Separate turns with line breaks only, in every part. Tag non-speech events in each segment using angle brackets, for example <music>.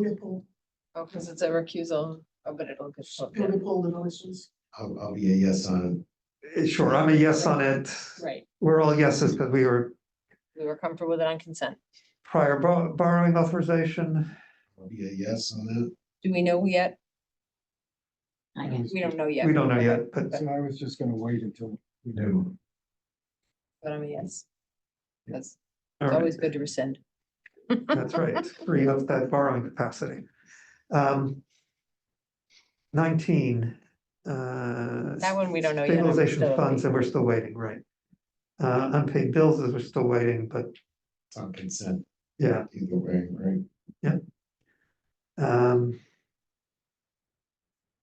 Beautiful,
Oh, because it's a recusal, oh, but it'll get. voted.
beautiful delicious.
I'll, I'll be a yes on
Eh, Sure, I'm a yes on it.
Right,
We're all yeses because we were
we were comfortable with it on consent.
prior bor- borrowing authorization.
it. I'll be a yes on that.
Do we know yet?
I guess.
We don't know yet.
We don't know yet, but
So I was just gonna wait until. we do.
No.
But I'm a yes. That's,
all
it's
right,
always good to rescind.
that's
<laughs>
right, free up that borrowing capacity. Um. Nineteen. uh,
That one we don't know yet. I'm
Stabilization
still
funds,
waiting.
and we're still waiting, right? Uh, unpaid bills is we're still waiting, but
It's on consent
yeah,
either way, right?
um.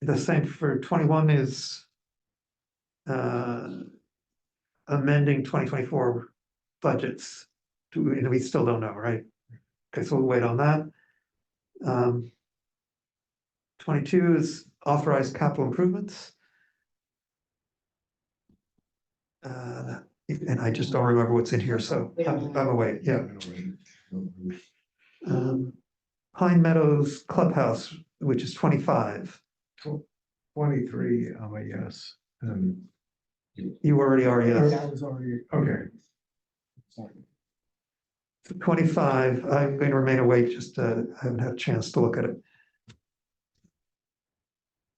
The same for twenty-one is. Uh. Amending twenty twenty-four budgets, do, we- we still don't know, right? Okay, so we'll wait on that. Um. Twenty-two is authorized capital improvements. Uh, and I just don't remember what's in here, so
We don't
I'm I'm away, yeah.
I'm gonna wait. Um,
Um, Pine Meadows Clubhouse, which is twenty-five,
Twenty-three, I'm a yes.
um,
you already are, yes.
That was already,
Okay,
sorry.
Twenty-five, I'm going to remain awake, just, uh, I haven't had a chance to look at it.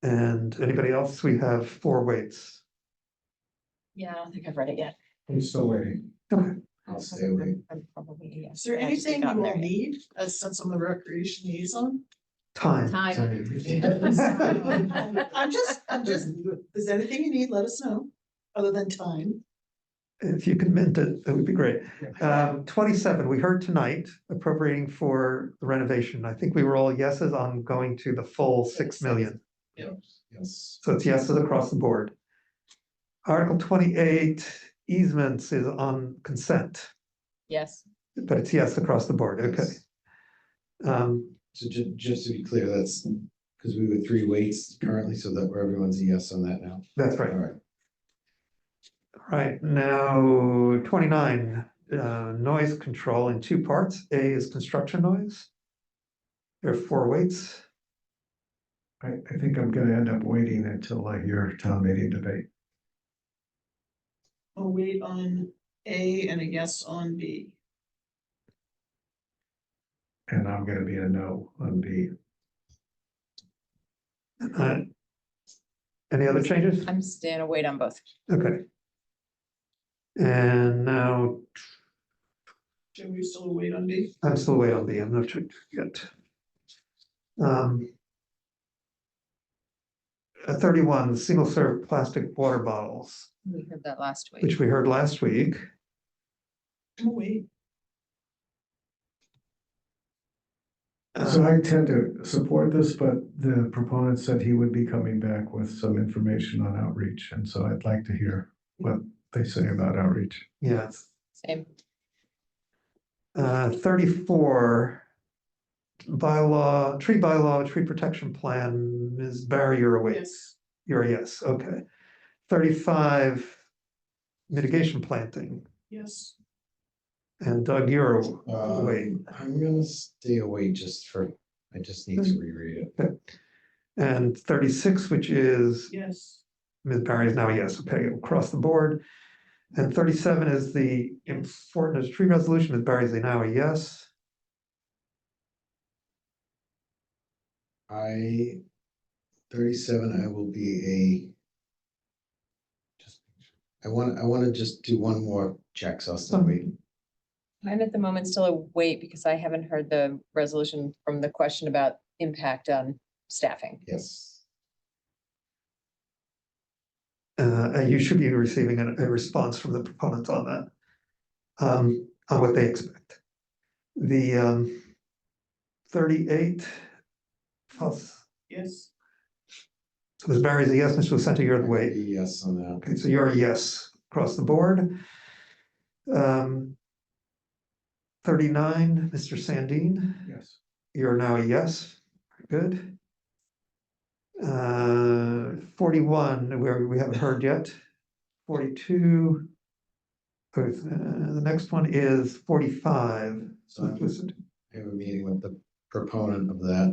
And anybody else? We have four waits.
Yeah, I don't think I've read it yet.
I'm still waiting.
Okay.
I'll stay awake.
I'm probably a yes.
Is there
I haven't
anything
gotten
you
there
all
yet.
need, uh, since I'm the recreation <laughs> liaison?
Time,
Time.
<laughs>
I'm just, I'm just, is there anything you need, let us know, other than time.
if you can mint it, that would be great.
Uh,
Um, twenty-seven, we heard tonight appropriating for renovation. I think we were all yeses on going to the full six million.
Yes,
So it's yeses across the board. Article twenty-eight easements is on consent,
Yes,
but it's yes across the board, okay.
Yes.
Um,
so ju- just to be clear, that's because we were three weights currently, so that everyone's a yes on that now.
that's
All
right,
right,
right, now twenty-nine, uh, noise control in two parts, A is construction noise. There are four weights,
I, I think I'm gonna end up waiting until I hear town meeting debate.
A wait on A and a yes on B.
And I'm gonna be a no on B.
uh. Any other changes?
I'm staying away on both.
Okay. And now
Should we still wait on B?
I'm still way on the, I'm not sure yet. Um. uh, Thirty-one, single serve plastic water bottles,
We heard that last week.
which we heard last week.
I'm wait.
So
Uh,
I tend to support this, but the proponent said he would be coming back with some information on outreach, and so I'd like to hear what they say about outreach.
yes,
Same.
uh, thirty-four. Bylaw, tree bylaw, tree protection plan, Ms. Barry, you're away,
Yes.
you're a yes, okay. Thirty-five. Mitigation planting,
Yes.
and Doug, you're
Um,
away.
I'm gonna stay away just for, I just need to reread it.
And thirty-six, which is
Yes.
Ms. Barry is now a yes, okay, across the board. And thirty-seven is the important tree resolution, Ms. Barry is now a yes.
I, thirty-seven, I will be a. just I want, I want to just do one more check, so I'll still wait.
I'm at the moment still a wait because I haven't heard the resolution from the question about impact on staffing.
Yes,
Uh, and you should be receiving a, a response from the proponents on that. Um, on what they expect. The, um, thirty-eight. plus-
Yes.
So Ms. Barry is a yes, Mr. Lucento, you're the
a
way.
yes on that.
Okay, so you're a yes across the board. Um. Thirty-nine, Mr. Sandin.
Yes.
You're now a yes, good. Uh, forty-one, where we haven't heard yet, forty-two. uh, the next one is forty-five.
So I'm- I have a meeting with the proponent of that.